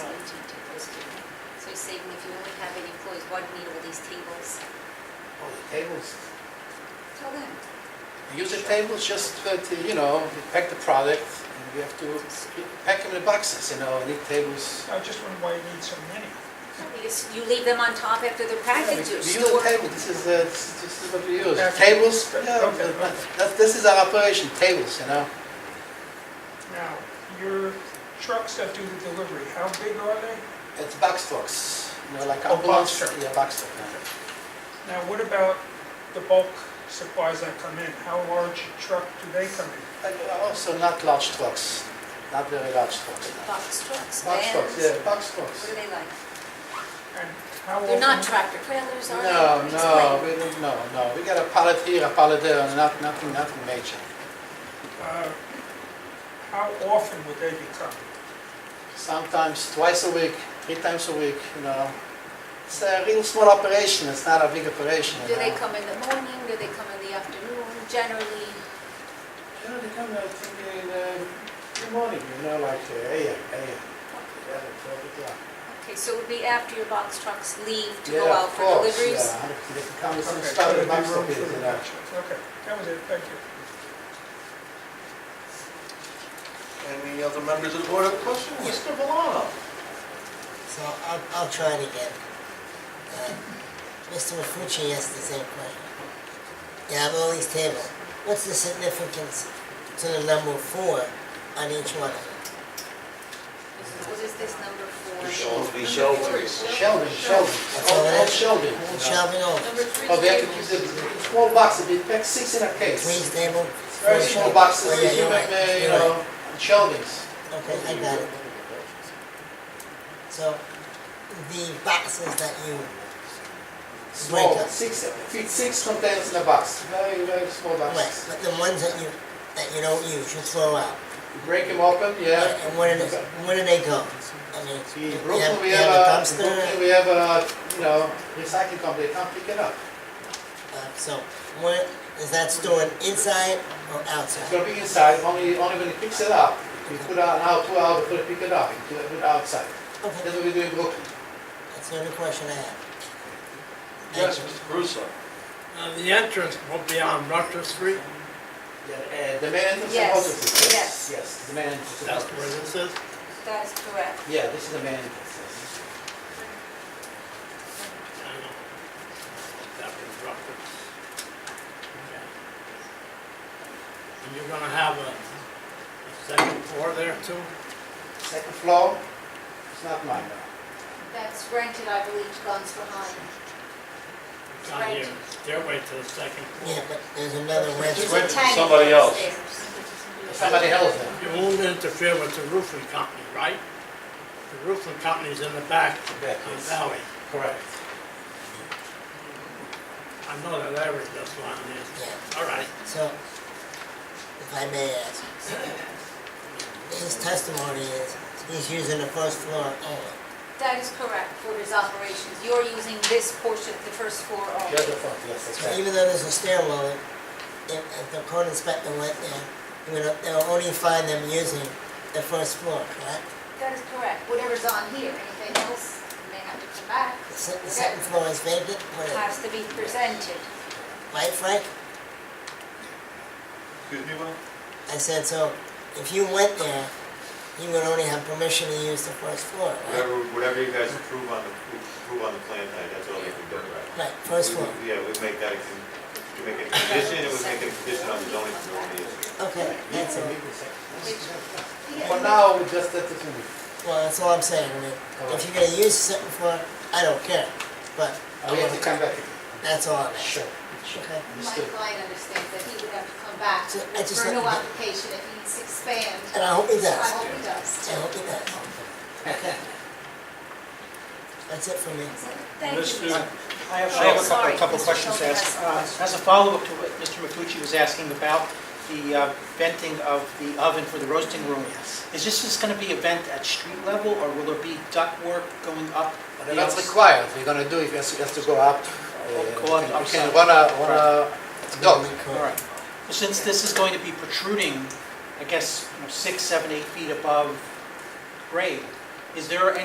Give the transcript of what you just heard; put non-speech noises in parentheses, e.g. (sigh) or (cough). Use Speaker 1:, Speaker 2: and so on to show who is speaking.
Speaker 1: saving if you only have eight employees, why do you need all these tables?
Speaker 2: Oh, the tables,
Speaker 1: Tell them.
Speaker 2: we use the tables just uh, to, you know, we pack the product, and we have to pack them in boxes, you know, and eat tables.
Speaker 3: I just wonder why you need so many.
Speaker 1: Because You leave them on top after they're packaged.
Speaker 2: We we
Speaker 1: you
Speaker 2: use
Speaker 1: store-
Speaker 2: the table, this is, uh, this is- this is what we use,
Speaker 3: Okay.
Speaker 2: tables,
Speaker 3: Okay,
Speaker 2: yeah,
Speaker 3: okay.
Speaker 2: but that- this is our operation, tables, you know.
Speaker 3: Now, your trucks that do the delivery, how big are they?
Speaker 2: It's box trucks, you know, like
Speaker 3: Oh,
Speaker 2: ambulance.
Speaker 3: box truck.
Speaker 2: Yeah, box truck. yeah.
Speaker 3: Now, what about the bulk supplies that come in? How large a truck do they come in?
Speaker 2: And also not large trucks, not very large trucks. no.
Speaker 1: Box trucks,
Speaker 2: Box trucks,
Speaker 1: vans.
Speaker 2: yeah, box
Speaker 1: What
Speaker 2: trucks.
Speaker 1: are they like?
Speaker 3: And how often?
Speaker 1: They're not tractor trailers, are they?
Speaker 2: No, no,
Speaker 1: Explain.
Speaker 2: we don't, no, no, we got a pallet here, a pallet there, and not, nothing, nothing major.
Speaker 3: uh, How often would they be coming?
Speaker 2: Sometimes twice a week, three times a week, you know. It's a real small operation, it's not a big operation. you
Speaker 1: Do they
Speaker 2: know.
Speaker 1: come in the morning, do they come in the afternoon, generally?
Speaker 2: You know, they come, I think, in, uh, in the morning, you know, like, uh, yeah, yeah, yeah, twelve o'clock.
Speaker 1: Okay, so it would be after your box trucks leave to
Speaker 2: Yeah,
Speaker 1: go
Speaker 2: of
Speaker 1: out for
Speaker 2: course,
Speaker 1: deliveries?
Speaker 2: Yeah, they can come as soon
Speaker 3: Okay,
Speaker 2: as
Speaker 3: so
Speaker 2: possible,
Speaker 3: there'd be
Speaker 2: box
Speaker 3: room
Speaker 2: truck is,
Speaker 3: for the
Speaker 2: you know.
Speaker 3: box trucks. Okay, that was it, thank you.
Speaker 4: Any other members of the board have a question? Mr. Valano?
Speaker 5: So I'll, I'll try it again. Uh, Mr. Mafucci asked the same question. You have all these tables. What's the significance to the number four on each one of them?
Speaker 1: What is this number four?
Speaker 4: be sheltering.
Speaker 2: Sheldon, Sheldon, all, all Sheldon. you know.
Speaker 5: Shelving over.
Speaker 1: Number three.
Speaker 2: Oh, they have to keep the the small boxes, they pack six in a
Speaker 5: Three
Speaker 2: case.
Speaker 5: stable?
Speaker 2: Very small boxes,
Speaker 5: Oh, Yeah,
Speaker 2: they
Speaker 5: you're
Speaker 2: give
Speaker 5: right,
Speaker 2: them, uh, you
Speaker 5: you're
Speaker 2: know,
Speaker 5: right.
Speaker 2: Sheldons.
Speaker 5: Okay, I got it. So the boxes that you,
Speaker 2: Small,
Speaker 5: Breaker.
Speaker 2: six, fit six containers in a box, very, very small
Speaker 5: right,
Speaker 2: boxes.
Speaker 5: but the ones that you, that you don't use, you throw out.
Speaker 2: You Break them open, yeah.
Speaker 5: And where do they, where do they go? I mean,
Speaker 2: In
Speaker 5: you
Speaker 2: Brooklyn,
Speaker 5: have,
Speaker 2: we
Speaker 5: you
Speaker 2: have
Speaker 5: have a
Speaker 2: a, in
Speaker 5: dumpster?
Speaker 2: Brooklyn, we have a, you know, recycling company, they come pick it up.
Speaker 5: Uh, So, where, is that stored inside or
Speaker 2: It's
Speaker 5: outside?
Speaker 2: gonna be inside, only, only when it picks it up, we put out an hour, two hours, put it, pick it up, and do it put it outside.
Speaker 5: Okay,
Speaker 2: That's what we do in Brooklyn.
Speaker 5: that's the only question I have.
Speaker 4: Yes, Mr. Caruso.
Speaker 6: Now, the entrance will be on Rutter Street,
Speaker 2: Yeah, uh, The main entrance and
Speaker 1: Yes, yes.
Speaker 2: offices, yes, yes, the main entrance. and
Speaker 6: that's
Speaker 2: offices.
Speaker 6: where this is.
Speaker 1: That is correct.
Speaker 2: Yeah, this is the main entrance. yes.
Speaker 6: I know. That was Rutter. Okay. And you're gonna have a a second floor there too?
Speaker 2: Second floor, it's not mine now.
Speaker 1: That's rented, I believe, to Guns for Hire.
Speaker 6: It's on here, stairway to the second
Speaker 5: Yeah,
Speaker 6: floor.
Speaker 5: but there's another
Speaker 1: There's
Speaker 5: restroom.
Speaker 1: a
Speaker 4: rented to
Speaker 1: tank
Speaker 4: somebody else.
Speaker 1: upstairs.
Speaker 2: It's Somebody else now.
Speaker 6: You won't interfere with the roofing company, right? The roofing company's in the back
Speaker 2: Back,
Speaker 6: of
Speaker 2: yes.
Speaker 6: Valley.
Speaker 2: Correct.
Speaker 6: I know that area just one is.
Speaker 5: Yeah.
Speaker 6: All right.
Speaker 5: So, if I may ask, his testimony is he's using the first floor only.
Speaker 1: That is correct for his operations. You're using this portion, the first floor
Speaker 2: The other
Speaker 1: only.
Speaker 2: front, yes, that's
Speaker 5: So
Speaker 2: right.
Speaker 5: even though there's a stairwell, if, if the code inspector went there, he would, they'll only find them using the first floor, correct?
Speaker 1: That is correct. Whatever's on here, anything else, you may have to come back.
Speaker 5: The se- the second floor is vacant, what is it?
Speaker 1: Has to be presented.
Speaker 5: right, Frank?
Speaker 4: Excuse me, Will?
Speaker 5: I said, so if you went there, you would only have permission to use the first floor, right?
Speaker 7: Whatever, whatever you guys approve on the, approve on the plan tonight, that's all you can do, right?
Speaker 5: Right, first floor.
Speaker 7: Yeah, we make that, a con- we make it a condition, and we make it a condition on the zoning committee.
Speaker 5: Okay, that's all.
Speaker 2: For now, we just let it move.
Speaker 5: Well, that's all I'm saying, I mean, if you're gonna use the second floor, I don't care, but I
Speaker 2: We have to
Speaker 5: want
Speaker 2: come back.
Speaker 5: that's all I'm asking.
Speaker 2: Sure, sure.
Speaker 5: Okay?
Speaker 1: My (laughs)
Speaker 2: Understood. (laughs)
Speaker 1: client understands that he would have to come back
Speaker 5: So I just
Speaker 1: for a
Speaker 5: let
Speaker 1: new
Speaker 5: him-
Speaker 1: application if he needs to expand.
Speaker 5: And I hope he
Speaker 1: I
Speaker 5: does.
Speaker 1: hope he does.
Speaker 5: I hope he does. Okay. That's it for me.
Speaker 1: Thank you.
Speaker 4: Mr.
Speaker 1: Mr.
Speaker 8: I have
Speaker 1: Oh,
Speaker 8: I have a couple,
Speaker 1: sorry,
Speaker 8: a couple
Speaker 1: Mr.
Speaker 8: questions to
Speaker 1: Sheldon
Speaker 8: ask.
Speaker 1: has
Speaker 8: Uh, As
Speaker 1: a
Speaker 8: a follow-up to what Mr. Mafucci was asking about the uh, venting of the oven for the roasting room. Is this just going to be a vent at street level, or will there be duct work going up?
Speaker 2: But that's
Speaker 8: Yes.
Speaker 2: required, we're gonna do, if it has to- has to go up. uh,
Speaker 8: go on
Speaker 2: we can-
Speaker 8: outside.
Speaker 2: We wanna, wanna, dog.
Speaker 8: All right. Well, Since this is going to be protruding, I guess, you know, six, seven, eight feet above grade, is there any